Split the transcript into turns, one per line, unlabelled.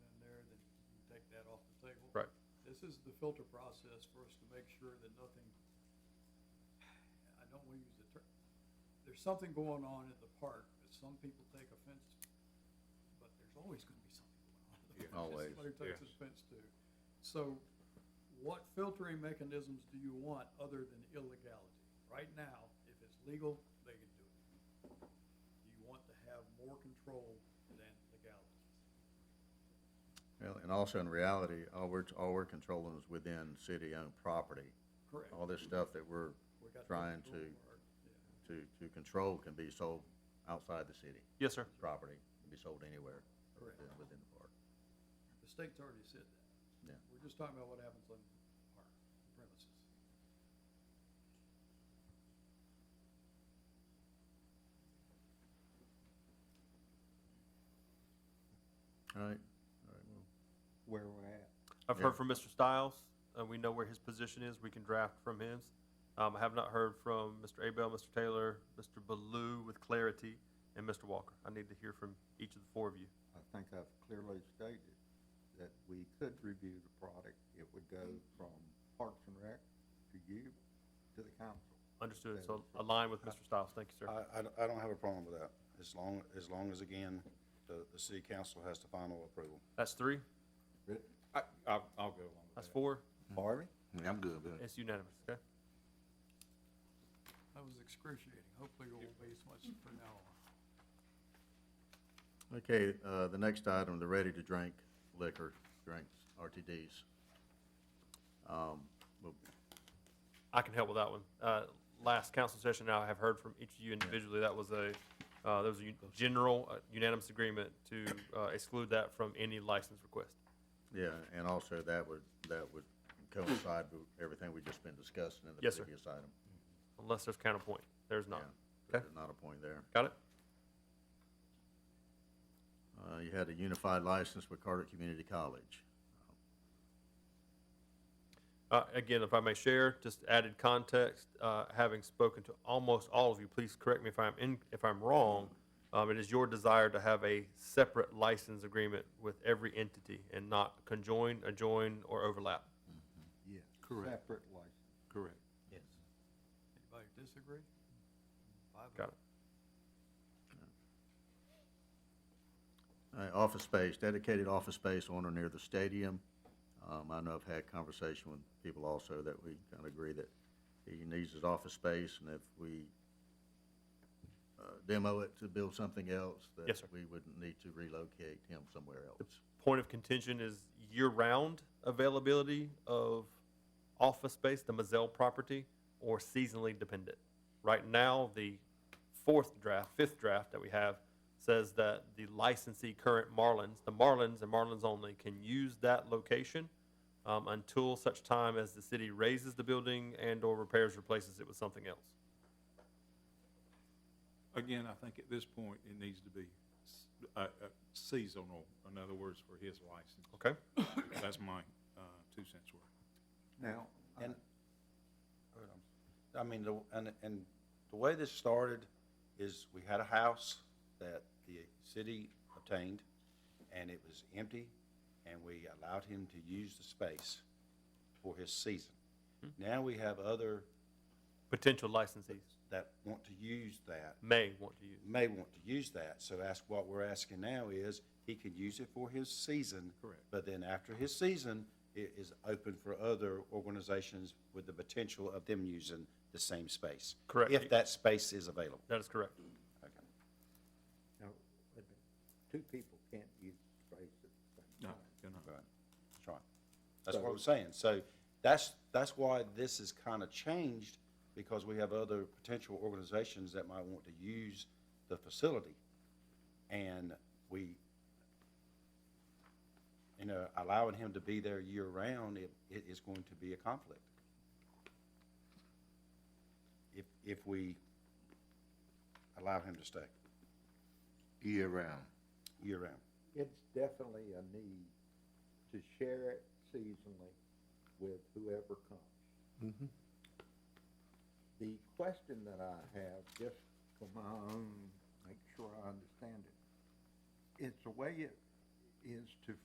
this is the filter process for us to make sure that nothing, I don't wanna use the term, there's something going on in the park that some people take offense to, but there's always gonna be something going on. in the
Yeah.
park that
Always,
Somebody takes
yes.
offense to. So what filtering mechanisms do you want other than illegality? Right now, if it's legal, they can do it. You want to have more control than legality.
Well, and also in reality, all we're, all we're controlling is within city-owned property.
Correct.
All this stuff that we're
We got
trying
control
to-
part, yeah.
to, to control can be sold outside the city
Yes, sir.
property, can be sold anywhere
Correct.
within, within the park.
The state's already said that.
Yeah.
We're just talking about what happens on our premises.
All right, all right, well,
where we're at.
I've
Yeah.
heard from Mr. Stiles. Uh, we know where his position is. We can draft from his. Um, I have not heard from Mr. Abel, Mr. Taylor, Mr. Baloo with clarity, and Mr. Walker. I need to hear from each of the four of you.
I think I've clearly stated that we could review the product. It would go from Parks and Rec to you, to the council.
Understood. So align with Mr. Stiles. Thank you, sir.
I, I don't- I don't have a problem with that, as long, as long as, again, the, the city council has the final approval.
That's three.
I, I'll, I'll go along with
That's four.
Harvey?
I'm good with it.
It's unanimous. Okay.
That was excruciating. Hopefully it won't be as much from now on.
Okay, uh, the next item, the ready-to-drink liquor, drinks, RTDs. Um, well,
I can help with that one. Uh, last council session, I have heard from each of you individually, that was a, uh, there was a u- general uh, unanimous agreement to, uh, exclude that from any license request.
Yeah, and also that would, that would coincide with everything we've just been discussing in the
Yes, sir.
previous item.
Unless there's counterpoint. There's
Yeah,
not.
so
Okay.
There's not a point there.
Got it?
Uh, you had a unified license with Carter Community College.
Uh, Again, if I may share, just added context, uh, having spoken to almost all of you, please correct me if I'm in, if I'm wrong. um, It is your desire to have a separate license agreement with every entity and not conjoin, adjoin, or overlap.
Yes.
Correct.
Separate license.
Correct.
Yes.
Anybody disagree? Five
Got it?
Uh, office space, dedicated office space on or near the stadium. Um, I know I've had conversation with people also that we kind of agree that he needs his office space, and if we uh, demo it to build something else, that
Yes, sir.
we would need to relocate him somewhere else.
Point of contention is year-round availability of office space, the Mazzell property, or seasonally dependent. Right now, the fourth draft, fifth draft that we have says that the licensee current Marlins, the Marlins and Marlins only, can use that location um, until such time as the city raises the building and/or repairs, replaces it with something else.
Again, I think at this point, it needs to be s- uh, uh, seasonal, in other words, for his license.
Okay?
That's my uh, two cents worth.
Now, I-
And, I mean, the, and, and the way this started is we had a house that the city obtained, and it was empty, and we allowed him to use the space for his season. Now we have other
Potential licensees
that want to use that,
may want to use.
may want to use that, so ask, what we're asking now is, he can use it for his season.
Correct.
But then after his season, it is open for other organizations with the potential of them using the same space.
Correct.
If that space is available.
That is correct.
Okay.
now, wait a minute. two people can't use the space at the same
No,
time.
you're not.
Right, that's right. That's what I'm saying. So that's, that's why this is kind of changed, because we have other potential organizations that might want to use the facility. And we, you know, allowing him to be there year-round, it, it is going to be a conflict. If, if we allow him to stay
year round.
year-round.
It's definitely a need to share it seasonally with whoever comes. The question that I have, just for my own, make sure I understand it, it's a way it is to